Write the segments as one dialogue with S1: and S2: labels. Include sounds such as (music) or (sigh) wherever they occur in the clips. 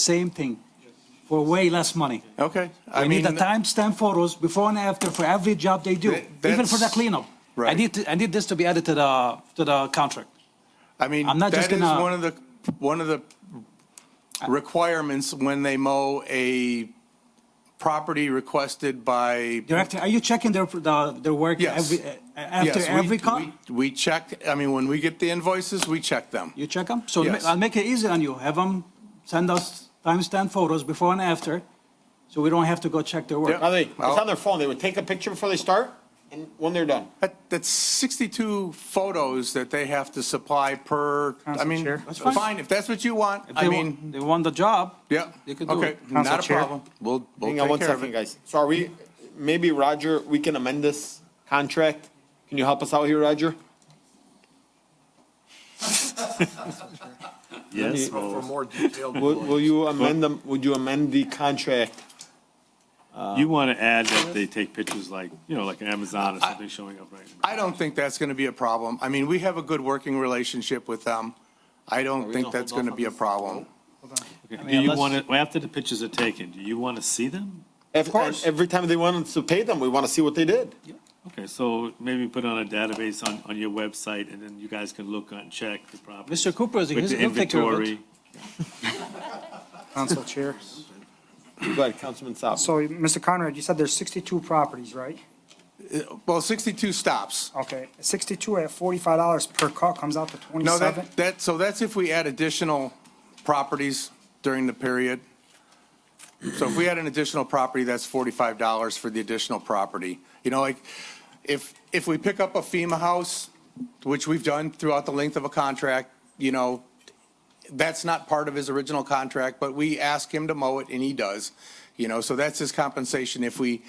S1: same thing for way less money.
S2: Okay. I
S1: I need the
S2: mean, uh,
S1: timestamp photos before and after for every job they do,
S2: That-
S1: even for the
S2: that's-
S1: cleanup. I
S2: Right.
S1: need, to- I need this to be added to the, to the contract.
S2: I mean,
S1: I'm not
S2: that
S1: just
S2: is
S1: gonna-
S2: one of the, one of the requirements when they mow a property requested by.
S1: Director, are you checking their, the- their work
S2: Yes.
S1: every, uh, after
S2: Yes, we-
S1: every cut?
S2: we- We check, I mean, when we get the invoices, we check them.
S1: You check them? So ma-
S2: Yes.
S1: I'll make it easy on you. Have them send us timestamp photos before and after, so we don't have to go check their work.
S2: Yeah.
S3: Now they, it's on their phone. They would take a picture before they start and when they're done.
S2: That, that's 62 photos that they have to supply per, I
S4: Council
S2: mean,
S4: Chair.
S1: That's fine.
S2: fine, if that's what you want.
S1: If
S2: I
S1: they wa-
S2: mean,
S1: They want the job.
S2: yeah,
S1: They could do
S2: okay,
S1: it.
S4: Council
S2: not a
S4: Chair.
S2: problem. We'll, we'll
S3: Hang on
S2: take
S3: one
S2: care of
S3: second,
S2: it.
S3: guys. So are we, maybe Roger, we can amend this contract? Can you help us out here, Roger?
S5: Yes, well,
S3: Will, will you amend them, would you amend the contract?
S1: uh,
S5: you want to add that they take pictures like, you know, like Amazon or something showing up right now.
S2: I don't think that's going to be a problem. I mean, we have a good working relationship with them. I don't think that's going to be a problem.
S5: Okay,
S1: mean,
S5: Do you
S1: unless-
S5: want to, after the pictures are taken, do you want to see them?
S3: Of
S2: course.
S3: Every time they want us to pay them, we want to see what they did.
S5: Okay, so maybe put on a database on, on your website and then you guys can look on, check the property.
S1: Mr. Cooper is-
S5: With
S1: he's-
S5: the
S1: he'll take care of it.
S5: inventory.
S4: (laughs) Council Chair.
S3: Go ahead, Councilman Saab.
S4: So, Mr. Conrad, you said there's 62 properties, right?
S2: Well, 62 stops.
S4: Okay, 62 at $45 per cut comes out to
S2: No,
S4: 27?
S2: that, that, so that's if we add additional properties during the period. So if we add an additional property, that's $45 for the additional property. You know, like, if, if we pick up a FEMA house, which we've done throughout the length of a contract, you know, that's not part of his original contract, but we ask him to mow it and he does. You know, so that's his compensation. If we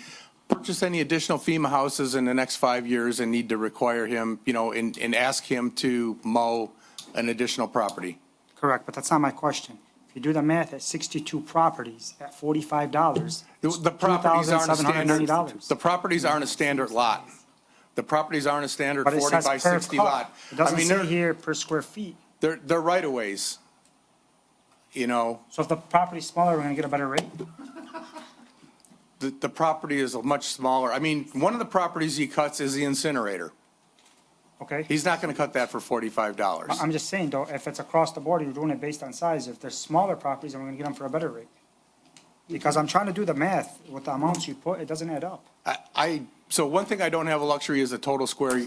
S2: purchase any additional FEMA houses in the next five years and need to require him, you know, and, and ask him to mow an additional property.
S4: Correct, but that's not my question. If you do the math at 62 properties at $45,
S2: The-
S4: it's
S2: The properties aren't a standard,
S4: $2,790.
S2: the properties aren't a standard lot. The properties aren't a standard
S4: But it
S2: 40
S4: says
S2: by
S4: per
S2: 60
S4: cut.
S2: lot.
S4: It
S2: I
S4: doesn't
S2: mean,
S4: say
S2: they're,
S4: here per square feet.
S2: they're, they're right of ways. You know,
S4: So if the property's smaller, we're gonna get a better rate?
S2: the, the property is much smaller. I mean, one of the properties he cuts is the incinerator.
S4: Okay?
S2: He's not going to cut that for forty-five dollars.
S4: I- I'm just saying, though, if it's across the board, you're doing it based on size. If there's smaller properties, then we're gonna get them for a better rate. Because I'm trying to do the math with the amounts you put, it doesn't add up.
S2: I, I, so one thing I don't have a luxury is the total square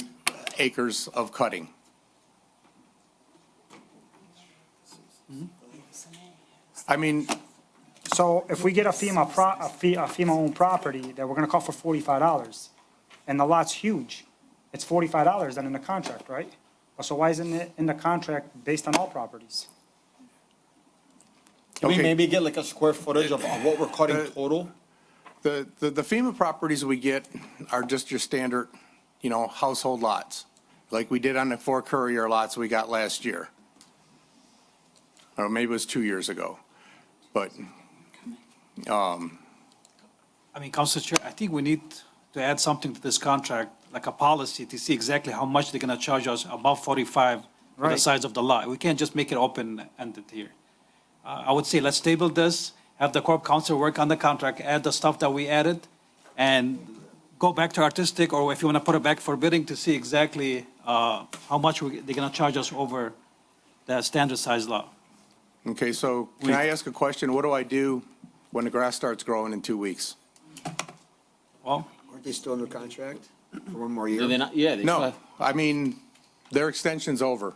S2: acres of cutting. I mean,
S4: So if we get a FEMA pro, a fee, a FEMA-owned property that we're gonna call for forty-five dollars, and the lot's huge, it's forty-five dollars then in the contract, right? So why isn't it in the contract based on all properties?
S3: Can we
S2: Okay. Uh,
S3: maybe get like a square footage of of what we're cutting total?
S2: the, the the FEMA properties we get are just your standard, you know, household lots, like we did on the four courier lots we got last year. Or maybe it was two years ago, but,
S1: I mean, Council Chair, I think we need to add something to this contract, like a policy to see exactly how much they're gonna charge us above forty-five for the
S4: Right.
S1: size of the lot. We can't just make it open-ended here. Uh, I would say let's table this, have the Corp Council work on the contract, add the stuff that we added, and go back to artistic, or if you wanna put it back for bidding to see exactly, uh, how much we, they're gonna charge us over the standard size lot.
S2: okay, so can I ask a question? What do I do when the grass starts growing in two weeks?
S1: Well,
S6: Aren't they still under contract for one more year?
S7: Do they not? Yeah. They
S2: No, I mean, their extension's over.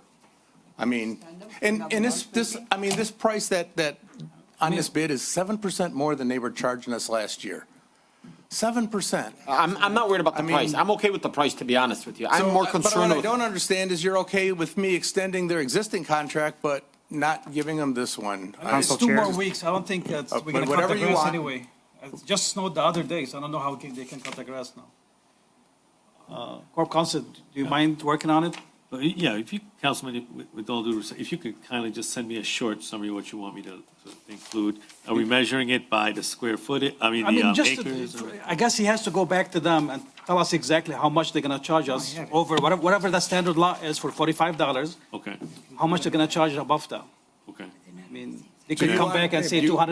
S2: I mean, and, and this, this, I mean, this price that, that, on this bid is seven percent more than they were charging us last year. Seven percent.
S3: I'm, I'm not worried about the
S2: mean-
S3: price. I'm okay with the price, to be honest with you. I'm more
S2: But
S3: concerned
S2: what I
S3: with.
S2: don't understand is you're okay with me extending their existing contract, but not giving them this one. I-
S1: Uh, It's
S4: Council
S1: two
S4: Chair.
S1: more weeks, I don't think that's,
S2: Uh,
S1: we're gonna cut
S2: but whatever
S1: the
S2: you
S1: grass
S2: want.
S1: anyway. It just snowed the other day, so I don't know how can- they can cut the grass now. Uh, Corp Council, do you mind working on it?
S5: But y- yeah, if you, Councilman, with- with all due respect, if you could kindly just send me a short summary of what you want me to to include. Are we measuring it by the square footage? I mean,
S1: I
S5: the
S1: mean,
S5: um,
S1: just,
S5: acres? or-
S1: I guess he has to go back to them and tell us exactly how much they're gonna charge us over whatever, whatever the standard law is for forty-five dollars,
S5: Okay,
S1: how much they're gonna charge above that.
S5: okay.
S1: I mean, They could come back and say two hundred